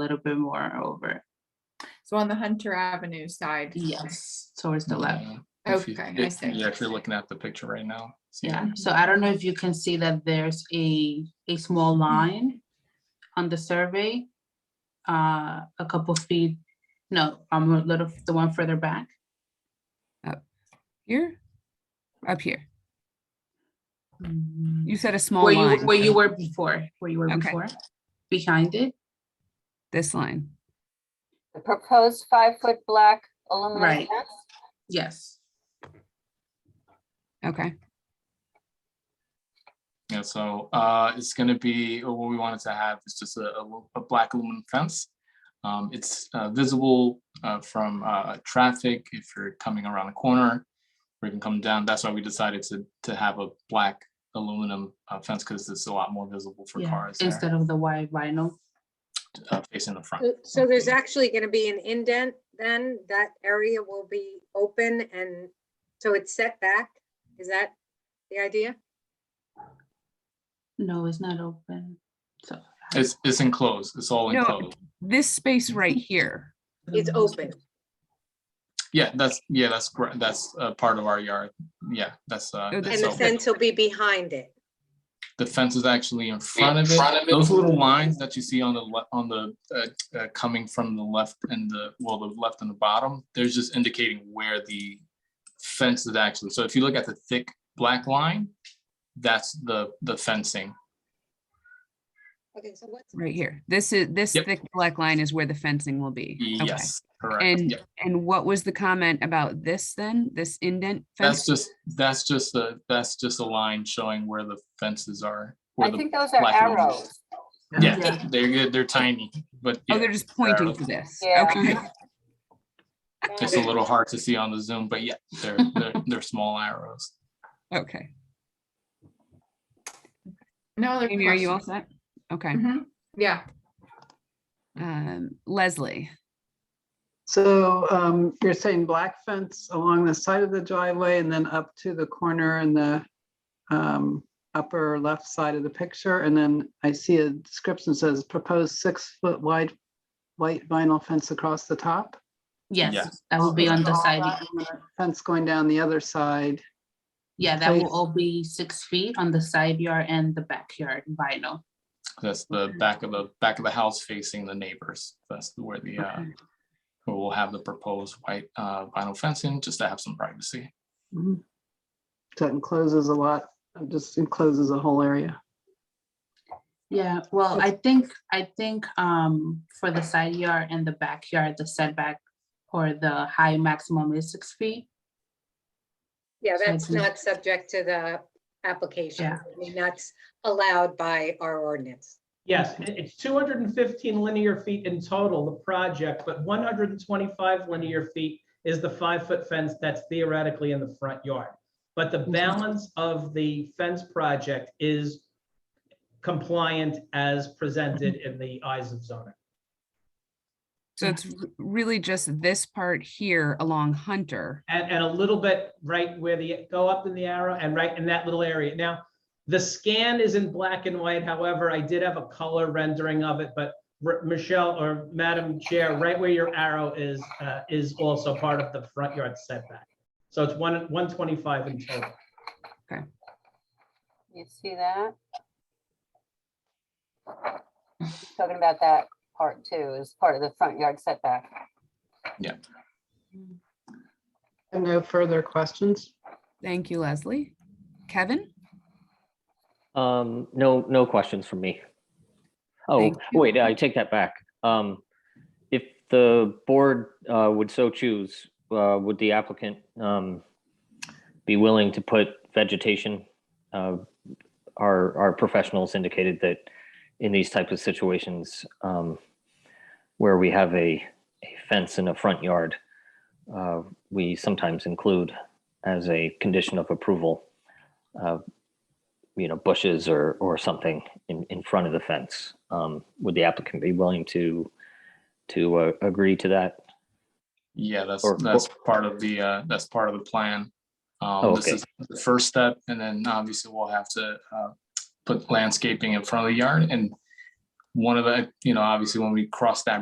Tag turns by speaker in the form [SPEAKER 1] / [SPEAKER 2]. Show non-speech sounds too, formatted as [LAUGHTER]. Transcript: [SPEAKER 1] little bit more over.
[SPEAKER 2] So on the Hunter Avenue side.
[SPEAKER 1] Yes, towards the left.
[SPEAKER 2] Okay,
[SPEAKER 3] Uh, If you-
[SPEAKER 2] I
[SPEAKER 3] if
[SPEAKER 2] see.
[SPEAKER 3] You're actually looking at the picture right now. See that?
[SPEAKER 1] Yeah, so I don't know if you can see that there's a, a small line on the survey. Uh, a couple feet, no, um, a little, the one further back.
[SPEAKER 4] Here? Up here.
[SPEAKER 1] Where
[SPEAKER 4] You said a Mm-hmm. small
[SPEAKER 1] you,
[SPEAKER 4] line.
[SPEAKER 1] where you were before, where you were
[SPEAKER 4] Okay.
[SPEAKER 1] before, behind it,
[SPEAKER 4] This line.
[SPEAKER 5] The proposed five-foot black aluminum
[SPEAKER 1] Right.
[SPEAKER 5] fence?
[SPEAKER 1] yes.
[SPEAKER 4] Okay.
[SPEAKER 3] Yeah, so uh, it's gonna be, or what we wanted to have is just a, a lu- a black aluminum fence. Um, It's uh, visible uh, from uh, traffic if you're coming around the corner, or you can come down. That's why we decided to, to have a black aluminum uh, fence, because it's a lot more visible for
[SPEAKER 1] yeah,
[SPEAKER 3] cars there,
[SPEAKER 1] Instead of the white vinyl,
[SPEAKER 3] uh, facing the front.
[SPEAKER 6] So- So there's
[SPEAKER 3] Okay.
[SPEAKER 6] actually going to be an indent then, that area will be open and so it's set back? Is that the idea?
[SPEAKER 1] no, it's not open, so.
[SPEAKER 3] It's, it's enclosed, it's all
[SPEAKER 4] No.
[SPEAKER 3] enclosed.
[SPEAKER 4] This space
[SPEAKER 1] [LAUGHS]
[SPEAKER 4] right here.
[SPEAKER 6] It's
[SPEAKER 1] Mm-hmm.
[SPEAKER 6] open.
[SPEAKER 3] Yeah, that's, yeah, that's, gr- that's uh, part of our yard. Yeah, that's. uh,
[SPEAKER 4] Oh, the
[SPEAKER 3] that's
[SPEAKER 6] And the
[SPEAKER 3] open.
[SPEAKER 6] fence will be behind it.
[SPEAKER 3] the fence is actually in front of it. Those little lines that you see on the, le- on the, uh, uh, coming from the left and the, well, the left and the bottom, there's just indicating where the fence is actually. So if you look at the thick black line, that's the, the fencing.
[SPEAKER 6] Okay, so what's,
[SPEAKER 4] Right here. This is, this
[SPEAKER 3] Yep.
[SPEAKER 4] thick black line is where the fencing will be. Okay.
[SPEAKER 3] Yes, correct.
[SPEAKER 4] And,
[SPEAKER 3] Yeah.
[SPEAKER 4] and what was the comment about this then? This indent
[SPEAKER 3] That's
[SPEAKER 4] fence?
[SPEAKER 3] just, that's just a, that's just a line showing where the fences are. where
[SPEAKER 5] I
[SPEAKER 3] the-
[SPEAKER 5] think those are
[SPEAKER 3] black aluminum.
[SPEAKER 5] arrows.
[SPEAKER 3] Yeah, they're, good, they're tiny, but
[SPEAKER 4] Oh,
[SPEAKER 3] yeah,
[SPEAKER 4] they're just pointing
[SPEAKER 3] arrows.
[SPEAKER 4] to this.
[SPEAKER 5] Yeah.
[SPEAKER 1] [LAUGHS]
[SPEAKER 4] Okay.
[SPEAKER 3] it's a little hard to see on the Zoom, but yeah, they're, they're, they're small arrows.
[SPEAKER 4] Okay.
[SPEAKER 2] No other
[SPEAKER 4] Amy, are you all
[SPEAKER 2] questions.
[SPEAKER 4] set? Okay.
[SPEAKER 2] Mhm. Yeah,
[SPEAKER 1] Mm-hmm.
[SPEAKER 4] Um, Leslie,
[SPEAKER 7] So um, you're saying black fence along the side of the driveway and then up to the corner in the um, upper left side of the picture. And then I see a description says proposed six foot wide white vinyl fence across the top.
[SPEAKER 1] Yes, that will be on the
[SPEAKER 7] All
[SPEAKER 1] siding.
[SPEAKER 7] that and the Fence going down the other side.
[SPEAKER 1] Yeah, that will
[SPEAKER 7] place.
[SPEAKER 1] all be six feet on the side yard and the backyard vinyl.
[SPEAKER 3] That's the back of the, back of the house facing the neighbors. That's where the, uh,
[SPEAKER 4] Okay.
[SPEAKER 3] where we'll have the proposed white, uh, vinyl fencing, just to have some privacy.
[SPEAKER 7] Mhm. So it encloses a lot, it just encloses a whole area.
[SPEAKER 1] Yeah, well, I think, I think um for the side yard and the backyard, the setback or the high maximum is six feet.
[SPEAKER 6] yeah,
[SPEAKER 1] So
[SPEAKER 6] that's
[SPEAKER 1] it's-
[SPEAKER 6] not subject to the application.
[SPEAKER 1] Yeah.
[SPEAKER 6] I mean, that's allowed by our ordinance.
[SPEAKER 8] Yes, it- it's 215 linear feet in total, the project, but 125 linear feet is the five-foot fence that's theoretically in the front yard. But the balance of the fence project is compliant as presented in the eyes of zoning.
[SPEAKER 4] so it's r- really just this part here along Hunter.
[SPEAKER 8] And, and a little bit right where the, go up in the arrow and right in that little area. Now, the scan is in black and white, however, I did have a color rendering of it, but R- Michelle or Madam Chair, right where your arrow is, uh, is also part of the front yard setback. So it's one, 125 in total.
[SPEAKER 5] You see that? He's Talking about that part too, is part of the front yard setback.
[SPEAKER 7] And no further questions?
[SPEAKER 4] Thank you, Leslie. Kevin?
[SPEAKER 9] Um, no, no questions from me. Oh,
[SPEAKER 4] Thank you.
[SPEAKER 9] wait, I take that back. Um, if the board, uh, would so choose, uh, would the applicant, um, be willing to put vegetation? Uh, our, our professionals indicated that in these type of situations, um, where we have a, a fence in a front yard, uh, we sometimes include as a condition of approval, uh, you know, bushes or, or something in, in front of the fence. Um, would the applicant be willing to, to uh, agree to that?
[SPEAKER 3] Yeah, that's,
[SPEAKER 9] Or-
[SPEAKER 3] that's part of the, uh, that's part of the plan. Um,
[SPEAKER 9] Oh,
[SPEAKER 3] this
[SPEAKER 9] okay.
[SPEAKER 3] is the first step, and then obviously we'll have to, uh, put landscaping in front of the yard and one of the, you know, obviously when we cross that